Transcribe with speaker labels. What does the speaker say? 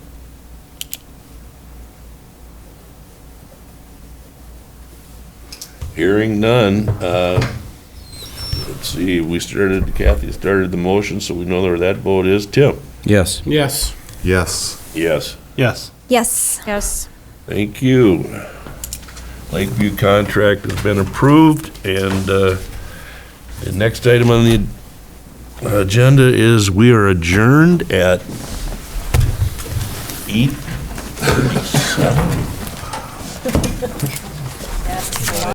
Speaker 1: Hearing none, uh, let's see, we started, Kathy started the motion, so we know where that vote is. Tim?
Speaker 2: Yes.
Speaker 3: Yes.
Speaker 4: Yes.
Speaker 1: Yes.
Speaker 3: Yes.
Speaker 5: Yes.
Speaker 6: Yes.
Speaker 1: Thank you. Lakeview contract has been approved, and uh, the next item on the agenda is we are adjourned at eight.